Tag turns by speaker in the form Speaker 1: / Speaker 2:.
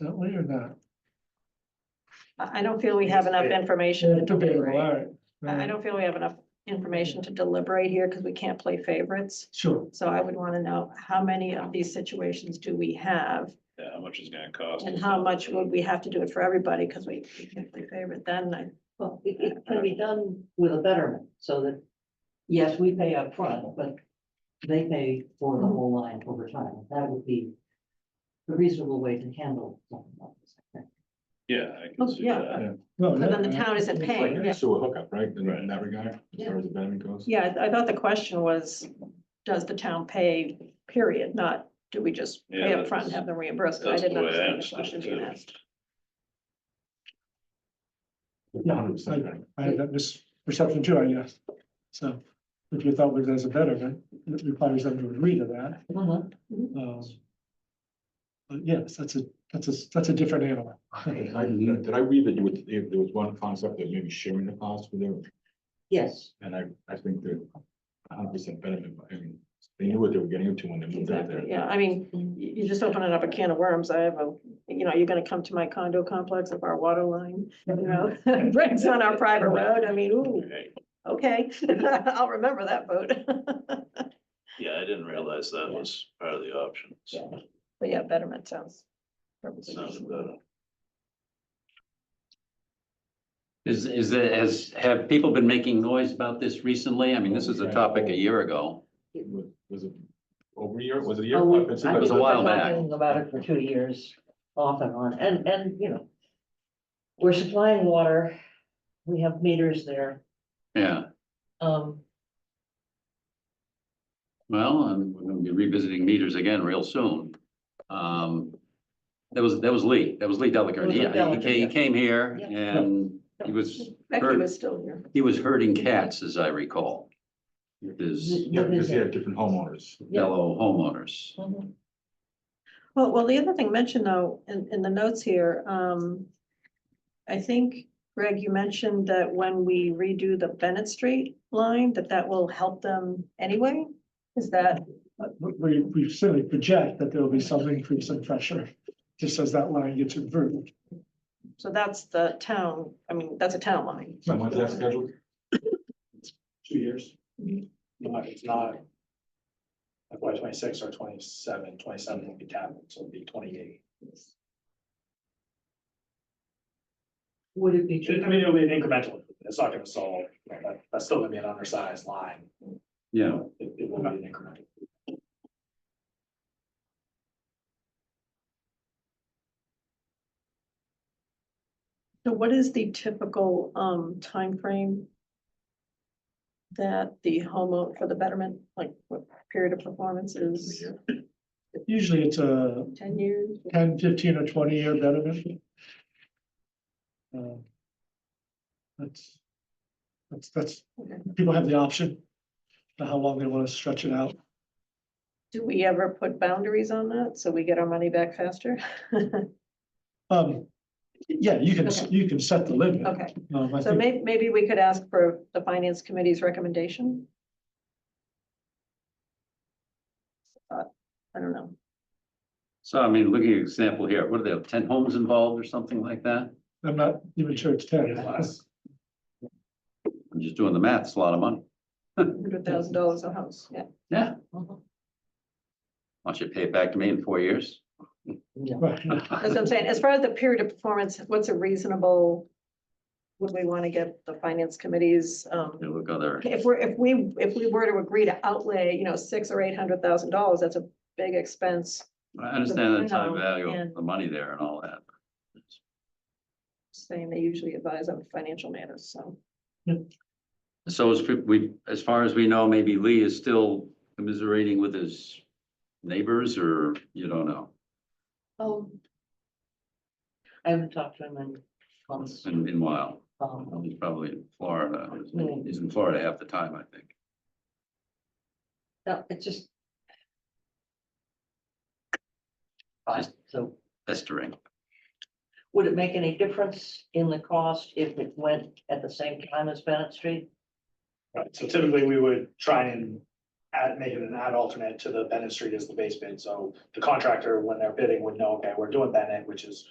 Speaker 1: that way or not?
Speaker 2: I, I don't feel we have enough information to
Speaker 1: Too big, all
Speaker 2: deliberate.
Speaker 1: right.
Speaker 2: I, I don't feel we have enough information to deliberate here because we can't play favorites.
Speaker 1: Sure,
Speaker 2: So I would want to know how many of these situations do we have?
Speaker 3: Yeah, how much is it gonna cost?
Speaker 2: And how much would we have to do it for everybody? Because we, we can't play favorite then. I,
Speaker 4: Well, it, it can be done with a betterment, so that, yes, we pay up front, but they pay for the whole line over time. That would be a reasonable way to handle something like this. I think.
Speaker 3: Yeah, I
Speaker 2: Oh,
Speaker 3: can see
Speaker 2: yeah.
Speaker 3: that.
Speaker 1: well,
Speaker 2: but then the
Speaker 1: yeah,
Speaker 2: town isn't paying.
Speaker 5: Like, So a hookup, right,
Speaker 3: Right.
Speaker 5: in that regard, as
Speaker 4: Yeah.
Speaker 5: far as the betterment goes?
Speaker 2: Yeah, I I thought the question was, does the town pay period, not do we just pay
Speaker 3: Yeah,
Speaker 2: up front and have them reimbursed? I
Speaker 3: that's the
Speaker 2: didn't
Speaker 3: way I
Speaker 2: understand the
Speaker 3: understood
Speaker 2: question
Speaker 3: it
Speaker 2: being
Speaker 3: too.
Speaker 2: asked.
Speaker 1: Yeah, I I had that misperception too, I guess. So if you thought we was a betterment, it requires them to agree to that. Um, But yes, that's a, that's a, that's a different animal.
Speaker 5: Did I did I read that you would, if there was one concept that maybe sharing the cost with them,
Speaker 4: Yes,
Speaker 5: and I, I think that a hundred percent betterment, I mean, they knew what they were getting into when they moved out
Speaker 2: Exactly,
Speaker 5: there.
Speaker 2: yeah, I mean, you, you just opening up a can of worms, I have a, you know, you're gonna come to my condo complex if our water line, you know, breaks on our private road, I mean, ooh,
Speaker 3: Okay.
Speaker 2: okay, I'll remember that vote.
Speaker 3: Yeah, I didn't realize that was part of the option. so
Speaker 2: But yeah, betterment sounds.
Speaker 3: it sounded better.
Speaker 6: Is, is, it- has, have people been making noise about this recently? I mean, this is a topic a year ago.
Speaker 5: It Was was it over a year, was it a year?
Speaker 4: Oh, we-
Speaker 5: It's-
Speaker 4: I
Speaker 6: It was a
Speaker 4: think
Speaker 6: while
Speaker 4: we've been
Speaker 6: back.
Speaker 4: talking About it for two years, off and on, and, and, you know, we're supplying water, we have meters there,
Speaker 6: Yeah,
Speaker 4: um,
Speaker 6: well, I'm, we're gonna be revisiting meters again real soon. Um, that was, that was Lee, that was Lee Delacour. He,
Speaker 4: It was
Speaker 6: he
Speaker 4: Lee Delacour,
Speaker 6: ca- he
Speaker 4: yeah.
Speaker 6: came here
Speaker 4: Yeah.
Speaker 6: and he was,
Speaker 2: Becky was still here.
Speaker 6: he was herding cats, as I recall. With his
Speaker 5: Yeah, because they have different homeowners.
Speaker 4: Yeah.
Speaker 6: fellow homeowners.
Speaker 4: mhm.
Speaker 2: Well, well, the other thing mentioned though, in, in the notes here, um, I think, Greg, you mentioned that when we redo the Bennett Street line, that that will help them anyway? Is that,
Speaker 1: Uh, We, we certainly project that there will be some increase in pressure, just as that line gets inverted.
Speaker 2: so that's the town, I mean, that's a town line.
Speaker 5: So when's that scheduled?
Speaker 7: two years. Not, it's not. FY twenty-six or 27. 27 will be tapped, so it'll be twenty-eight.
Speaker 4: Would it be
Speaker 7: I
Speaker 4: true?
Speaker 7: mean, it'll be an incremental, it's not gonna solve, you know, that, that's still gonna be an undersized line,
Speaker 6: Yeah,
Speaker 7: it, it will be an incremental.
Speaker 2: So what is the typical, um, timeframe that the homeowner for the betterment, like what period of performance is
Speaker 1: Usually it's a
Speaker 2: ten years?
Speaker 1: 10, 15, or twenty year betterment. Uh, That's, that's, that's,
Speaker 2: Okay.
Speaker 1: people have the option, of how long they want to stretch it out.
Speaker 2: Do we ever put boundaries on that so we get our money back faster?
Speaker 1: Um, yeah, you can,
Speaker 2: Okay.
Speaker 1: you can set the limit.
Speaker 2: Okay.
Speaker 1: Um, I
Speaker 2: So
Speaker 1: think,
Speaker 2: may, maybe we could ask for the finance committee's recommendation? Uh, I don't know.
Speaker 6: so I mean, looking at example here, what are they, ten homes involved or something like that?
Speaker 1: I'm not even sure it's ten.
Speaker 7: Unless,
Speaker 6: I'm just doing the math, it's a lot of money.
Speaker 2: Hundred thousand dollars a house, yeah.
Speaker 6: Yeah,
Speaker 4: Mhm.
Speaker 6: Why don't you pay it back to me in four years?
Speaker 4: No.
Speaker 1: Right.
Speaker 2: That's what I'm saying. As far as the period of performance, what's a reasonable? Would we want to get the finance committees, um,
Speaker 6: They look other,
Speaker 2: if we're, if we, if we were to agree to outlay, you know, six or eight hundred thousand dollars, that's a big expense.
Speaker 6: I understand the
Speaker 2: No,
Speaker 6: time value of
Speaker 2: and-
Speaker 6: the money there and all that.
Speaker 2: Saying they usually advise on financial matters, so.
Speaker 6: So as we- we, as far as we know, maybe Lee is still commiserating with his neighbors or you don't know.
Speaker 4: Um, I haven't talked to him in months.
Speaker 6: And meanwhile,
Speaker 4: Um,
Speaker 6: he's probably in Florida. He's in Florida half the time, I think.
Speaker 4: no, it's just. Fine, so
Speaker 6: Pestering.
Speaker 4: would it make any difference in the cost if it went at the same time as Bennett Street?
Speaker 7: right, so typically we would try and
Speaker 1: add, make it an add alternate to the Bennett Street as the base bid, so the contractor, when they're bidding, would know, okay, we're doing Bennett, which is